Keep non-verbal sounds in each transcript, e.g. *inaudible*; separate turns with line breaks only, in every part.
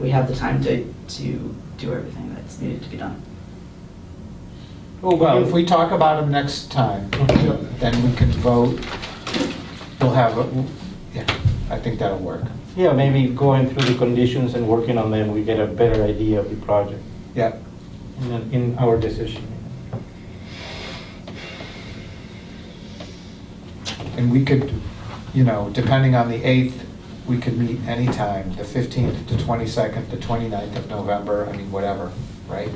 we have the time to, to do everything that's needed to be done.
Oh,
Well, if we talk about them next time, then we can vote. We'll have, a- yeah, I think that'll work.
Yeah, maybe going through the conditions and working on them, we get a better idea of the project
Yeah,
in, in our decision.
and we could, you know, depending on the 8th, we could meet anytime, the 15th, the 22nd, the 29th of November, I mean, whatever, right?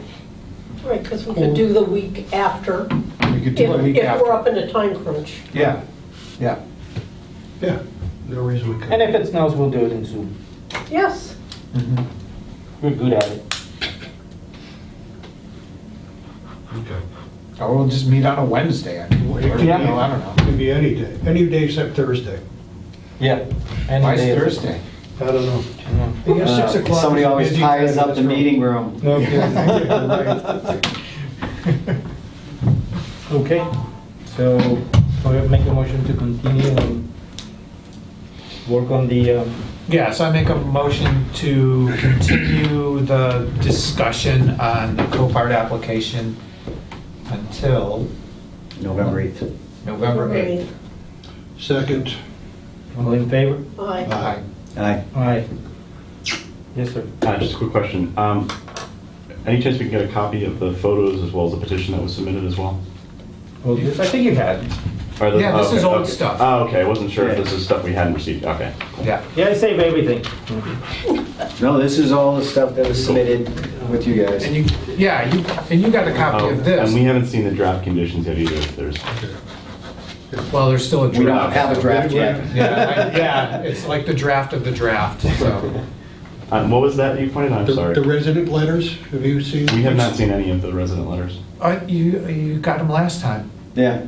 Right, because we could do the week after,
We could
if
do it week
if we're up
after.
in a time crunch.
Yeah, yeah.
Yeah, no reason we couldn't.
And if it snows, we'll do it in Zoom.
Yes,
mhm.
We're good at it.
Okay.
Or we'll just meet on a Wednesday, I mean, or, you
Yeah.
know, I don't
It
know.
could be any day, any day except Thursday.
Yeah.
Why is Thursday?
I don't know. I
Thursday?
guess six
Uh,
o'clock.
Somebody
is a
always
busy
ties
time in
up the
this room.
meeting room.
No, okay, yeah,
*laughs*
right.
Okay, so we'll make a motion to continue and work on the, um,
Yeah, so I make a motion to continue the discussion on the Copart application until
November 8th.
November 8th.
Second,
all in favor?
Aye.
Uh,
aye.
Aye.
Aye. Yes, sir.
Uh, Just a quick question. Um, Any chance we can get a copy of the photos as well as the petition that was submitted as well?
Well, this I think you had.
Or the-
Yeah, this
oh,
is
okay,
old
okay.
stuff.
Oh, okay, I wasn't sure if
Yeah.
this is stuff we hadn't received, okay. cool.
Yeah.
Yeah, I save everything.
No, this is all the stuff that was submitted with you guys.
And you, yeah, you, and you got a
Oh,
copy of
And
this.
we haven't seen the draft conditions yet either, if there's,
Well, there's still a
We don't
draft.
have a draft yet.
*laughs* Yeah, I- yeah, it's like the draft of the draft, so.
*laughs*
Um, what was that you pointed out? I'm
The the
sorry.
resident letters, have you seen?
We have not seen any of the resident letters.
Uh, You, you got them last time.
Yeah.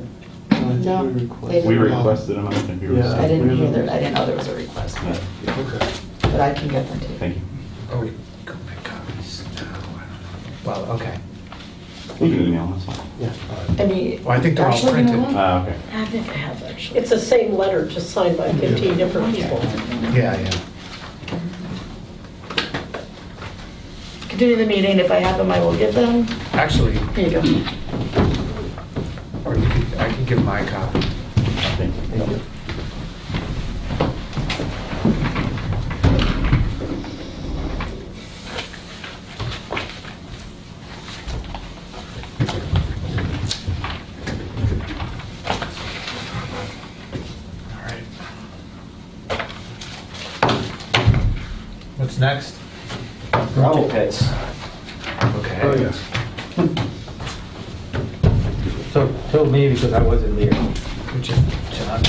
No, they
We
didn't,
requested them, I don't think we were.
I didn't hear there, I didn't know there was a request, but-
Okay.
but I can get them to you.
Thank you.
Oh, we got my copies. No, I don't know. Well, okay.
You can email us.
Yeah.
I mean.
Well, I think they're all
actually, you know
printed.
what?
Ah, okay.
I think I have, actually.
It's the same letter, just signed by 15 different people.
Yeah, yeah.
Continue the meeting, if I have them, I will give them.
Actually,
Here you go.
or you could, I can give my copy.
Thank you.
All right. What's next?
Gravel pits.
Okay.
Oh, yeah.
So told me because I wasn't there.
Which is John.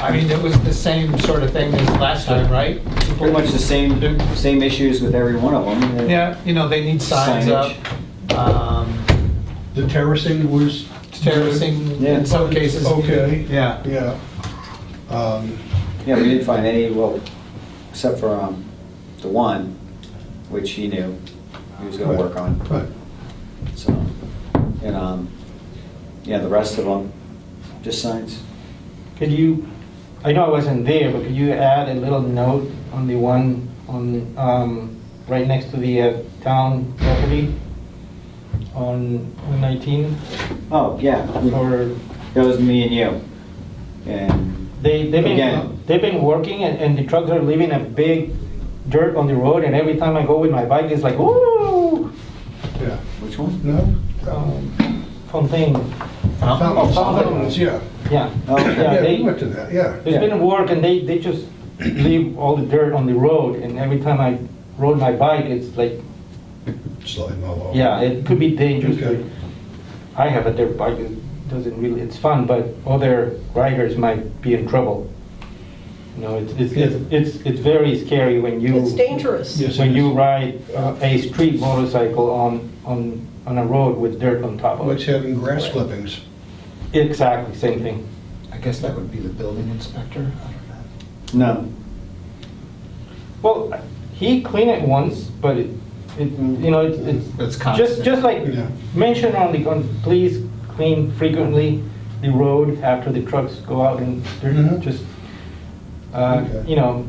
I mean, it was the same sort of thing as last time, right?
Pretty much the same, same issues with every one of them.
Yeah, you know, they need signs up. um,
The terracing was.
Terracing
Yeah.
in some cases.
Okay.
Yeah.
Yeah. Um,
Yeah, we didn't find any, well, except for um, the one, which he knew he was going to work on.
Right.
So, and, um, yeah, the rest of them, just signs.
Could you, I know I wasn't there, but could you add a little note on the one on, um, right next to the uh, town property on 19?
Oh, yeah. we-
Or
That was me and you. And
they, they've
Again.
been, they've been working and, and the trucks are leaving a big dirt on the road and every time I go with my bike, it's like, ooh,
Yeah.
which one?
No?
um, fountain. Oh, Fountain.
Fountains, fountains, yeah.
Yeah.
Oh, okay.
Yeah,
Yeah,
they-
we went to that, yeah.
It's been work and they, they just leave all the dirt on the road and every time I rode my bike, it's like,
Sliding all over.
yeah, it could be dangerous.
Okay.
but I have a dirt bike, it doesn't really, it's fun, but other riders might be in trouble. You know, it's, it's, it's, it's it's very scary when you.
It's dangerous.
Yes,
When
it
you
is.
ride uh, a street motorcycle on, on, on a road with dirt on top of
What's
it.
having grass clippings?
Exactly, same thing.
I guess that would be the building inspector, I don't know.
No.
Well, he cleaned it once, but it, it,
Mm.
you know, it's, it's.
It's
Just,
constant.
just like,
Yeah.
mention on the, on, please clean frequently the road after the trucks go out and they're
Mhm.
just, uh,
Okay.
you know,